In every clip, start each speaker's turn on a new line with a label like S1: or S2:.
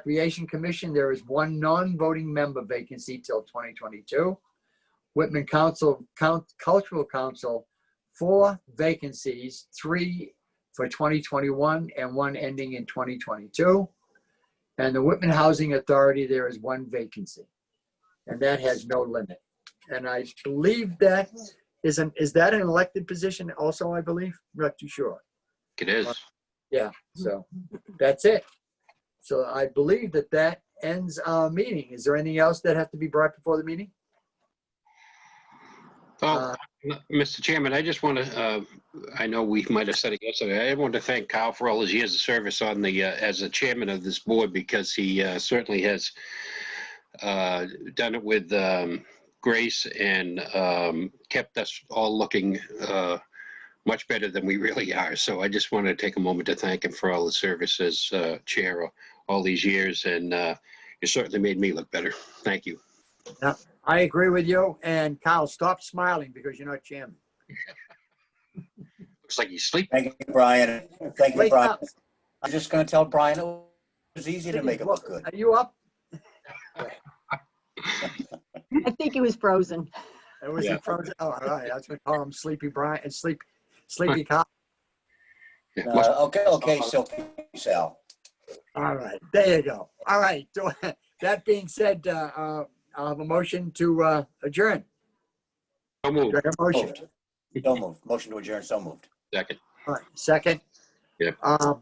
S1: Recreation Commission, there is one non-voting member vacancy till 2022. Whitman Council, Coun- Cultural Council, four vacancies, three for 2021 and one ending in 2022. And the Whitman Housing Authority, there is one vacancy. And that has no limit. And I believe that is an, is that an elected position also, I believe? Not too sure.
S2: It is.
S1: So that's it. So I believe that that ends our meeting. Is there anything else that has to be brought before the meeting?
S2: Oh,
S1: Uh,
S2: m- Mr. Chairman, I just want to, I know we might have said it yesterday. I want to thank Kyle for all his years of service on the, uh, as the chairman of this board because he uh, certainly has uh, done it with um, grace and um, kept us all looking uh, much better than we really are. So I just want to take a moment to thank him for all his service as uh, chair all these years. And uh, it certainly made me look better. Thank you.
S1: I agree with you. And Kyle, stop smiling because you're not chairman.
S2: Looks like he's sleeping.
S3: Thank you, Brian. Thank you,
S1: Wake
S3: Brian.
S1: up.
S3: I'm just gonna tell Brian it was easy to make it look good.
S1: Are you up?
S4: I think he was frozen.
S1: It was
S2: Yeah.
S1: frozen. Oh, all right. I was going to call him Sleepy Brian and Sleep, Sleepy Kyle.
S2: Yeah,
S3: Uh,
S2: must-
S3: Okay, okay, so, Sal.
S1: All right. There you go. All right. So, That being said, uh, uh, I'll have a motion to uh, adjourn.
S2: So moved.
S1: Do I have a motion?
S3: Moved. So moved. Motion to adjourn, so moved.
S2: Second.
S1: All right, Second.
S2: Yep.
S1: Um,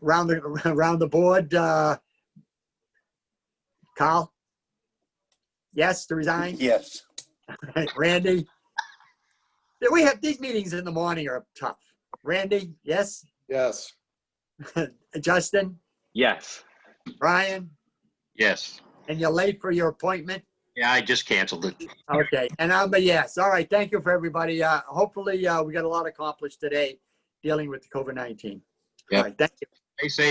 S1: Round the, round the board, uh, Kyle? Yes, to resign?
S3: Yes.
S1: Randy? Yeah, We have, these meetings in the morning are tough. Randy, yes?
S5: Yes.
S1: Justin?
S6: Yes.
S1: Brian?
S2: Yes.
S1: And you're late for your appointment?
S2: Yeah, I just canceled it.
S1: Okay, and I'm a yes. All right, thank you for everybody. Uh, hopefully, uh, we got a lot accomplished today dealing with the COVID-19. All
S2: Yep.
S1: right, thank you.
S2: They say